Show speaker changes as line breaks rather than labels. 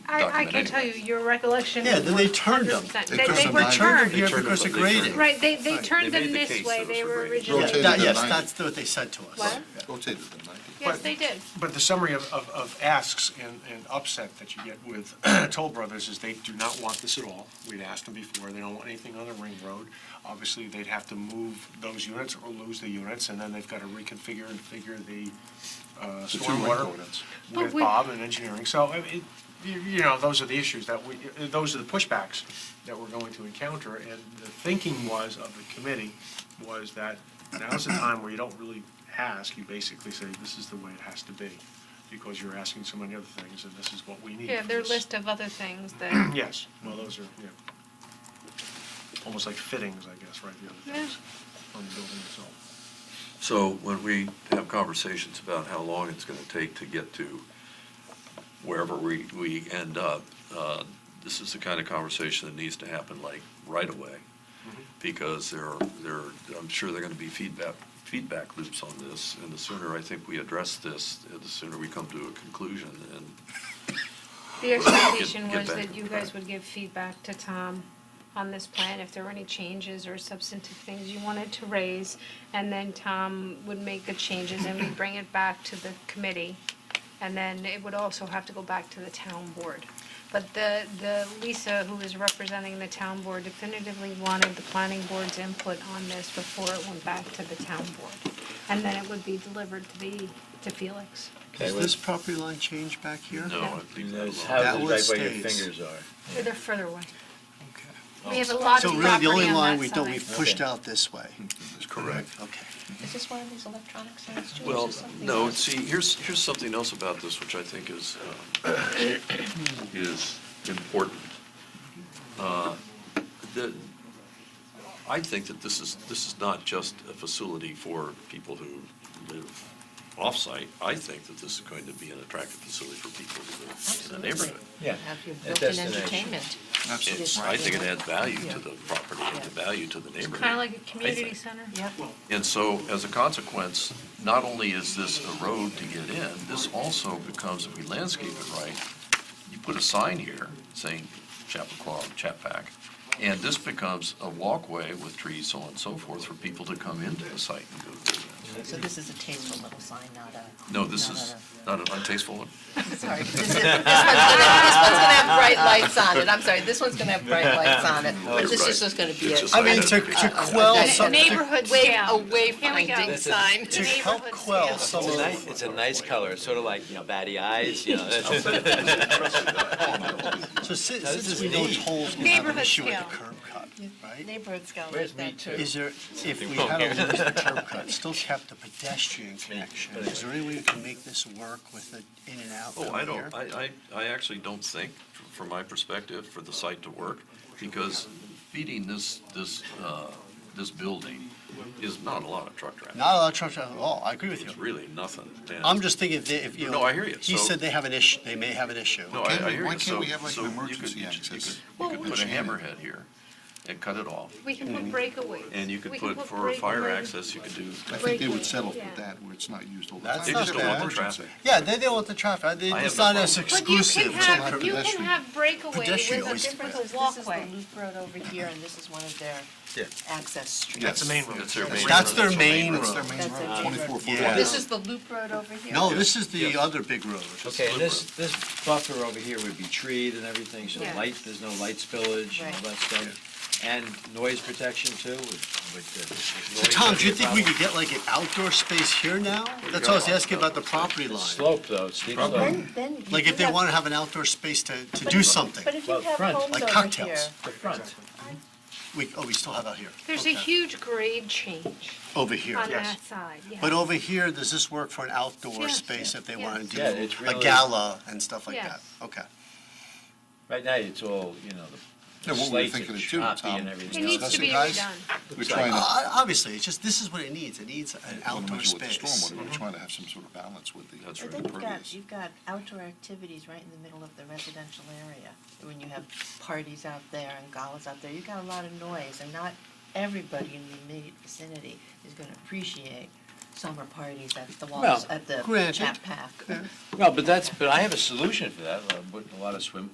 I, I
document
can tell you,
anyway.
your recollection.
Yeah, then they
was
turned them.
100%.
They
They,
took
they
some
were
back.
Turned
turned,
them here
They turned
because
them,
of
they turned
grading.
right, they, they
Right.
turned
They made
them
the
this
case
way,
that
they
it was
were
graded.
originally.
Yeah,
Rotated
that-
the
yes,
ninth.
that's what they said to us.
What?
Rotated the 90.
Yes, they did.
But the summary of, of, of asks and, and upset that you get with Toll Brothers is they do not want this at all. We'd asked them before, they don't want anything on the ring road. Obviously, they'd have to move those units or lose the units, and then they've got to reconfigure and figure the uh,
The two ring
stormwater
ordinance.
But
with
we-
Bob and engineering. So, I mean, you you know, those are the issues that we, those are the pushbacks that we're going to encounter. And the thinking was of the committee was that now's the time where you don't really ask, you basically say, this is the way it has to be, because you're asking so many other things, and this is what we need.
Yeah,
for
their
this.
list of other things that,
Yes, well, those are, yeah, almost like fittings, I guess, right, the other
Yeah.
things on the building itself.
So when we have conversations about how long it's going to take to get to wherever we, we end up, uh, this is the kind of conversation that needs to happen like right away.
Mm-hmm.
Because there are, there, are- I'm sure there are going to be feedback, feedback loops on this. And the sooner I think we address this, the sooner we come to a conclusion. And
the expectation
get
was
back
that
on
you
track.
guys would give feedback to Tom on this plan, if there were any changes or substantive things you wanted to raise, and then Tom would make the changes and we'd bring it back to the committee. And then it would also have to go back to the town board. But the, the, Lisa, who is representing the town board definitively wanted the planning board's input on this before it went back to the town board. And then it would be delivered to the, to Felix.
Does this property line change back here?
no, I leave that
Those
alone.
That one
houses right where your
stays.
fingers are.
They're further away.
Okay.
We have a lot of
So
property on
really,
that side.
the only line we don't, we've pushed out this way.
That's correct.
Okay.
Is this one of these electronic signs, George,
Well,
or something?
no,
else?
see, here's, here's something else about this, which I think is, um, is important. Uh, The, I think that this is, this is not just a facility for people who live off-site. I think that this is going to be an attractive facility for people who live in the neighborhood.
Yeah.
Have your
a
built-in
destination.
entertainment.
It's- I think it adds value to the property and to value to the neighborhood.
Kind of like a
I
community
think.
center.
Yep.
And so, as a consequence, not only is this a road to get in, this also becomes, if we landscape it right, you put a sign here saying Chappaqua, Chapac, and this becomes a walkway with trees, so on and so forth, for people to come into the site and go to that.
So this is a tasteful little sign, not a.
No, this
not
is not an untasteful one.
a- Sorry, this is- this one's gonna this one's gonna have bright lights on it, I'm sorry, this one's gonna have bright lights on it, but this is just gonna be
It's
a.
just
I
like
mean,
that.
to, to quell
That's
some, to
Neighborhood
Way, a
scale. Here we go.
wayfinding sign.
to help
neighborhood
quell
scale.
some of
It's a
the
nice, it's a nice color, sort of like, you know, batty eyes, you know. that's-
So si-
Now, this
since
is
we know
neat.
tolls can have an
Neighborhood
issue with the
scale.
curb cut, right?
Neighborhood scale.
Where's me too?
Is there, if we
Oh,
had to lose the curb cut, still kept the pedestrian connection, is there any way we can make this work with the in and out
Oh, I
from here?
don't, I, I, I actually don't think, from my perspective, for the site to work, because feeding this, this, uh, this building is not a lot of truck traffic.
Not a lot of truck traffic at all, I agree with
It's
you.
really nothing. and-
I'm just thinking if they, if, you know.
No, I hear you.
He
So-
said they have an issue, they may have an issue.
No, I,
Can't
I
we-
hear you.
why can't
So-
we have, like,
so
an
you could-
emergency
you could-
access?
You
Well,
could
we
put a
should.
hammerhead here and cut it off.
We can put breakaways.
And you could
We
put, for a fire
breakaways.
access, you could do,
I think they would
Breaking,
settle for
yeah.
that, where it's not used all the time.
That's
they
not
just don't want the
bad.
traffic.
Yeah, they don't want the traffic, I-
I
it's
have no
not as
problem.
But you
exclusive.
can
to
have,
like a
you can
pedestrian.
have breakaway with
Pedestrian
a
always
different
spreads.
This is the
walkway.
loop road over here, and this is one of their
Yeah.
access streets.
Yes.
That's the main road.
That's their main.
That's
road.
their main
That's their
road.
main
That's
road,
their main road.
twenty-four foot.
Yeah.
This is the loop road over here.
No, this is the
Yes.
other big road.
Okay, and this, this buffer over here would be treed and everything, so
Yeah.
light, there's no light spillage and all
Right.
that stuff. And noise protection too, with, with the. noise
Tom, do you
being a
think we
problem.
could get like an outdoor space here now? That's what I was asking about the property
It's
line.
Slope though, steep slope.
Then, then. you
Like
do
if they
have-
want to have an outdoor space to, to do something,
But if you
Well,
have
front,
homes
like
over here.
cocktails.
The front.
We, oh, we still have out here.
There's a
Okay.
huge grade change
Over here.
on
Yes.
that side, yeah.
But over here, does this work for an outdoor
Yes.
space if they
Yes.
want to
Yeah, it's
do a
really-
gala and stuff like that?
Yes.
Okay.
Right now, it's all, you know,
Yeah,
the
what we were
slates
thinking
are
of too,
choppy
Tom.
and
It
everything else.
needs to
Discussing
be
guys?
redone.
We're trying to,
Uh, Obviously, it's just, this is what it needs. It needs an
we wanna
outdoor
measure with the
space.
stormwater, we're trying to have some sort of balance with the
That's right.
But then you've got,
impervious.
you've got outdoor activities right in the middle of the residential area. When you have parties out there and galas out there, you've got a lot of noise, and not everybody in the immediate vicinity is gonna appreciate summer parties at the walls,
Well,
at the
granted.
Chat Pack.
No, but that's, but I have a solution for that, uh, with a lot of swim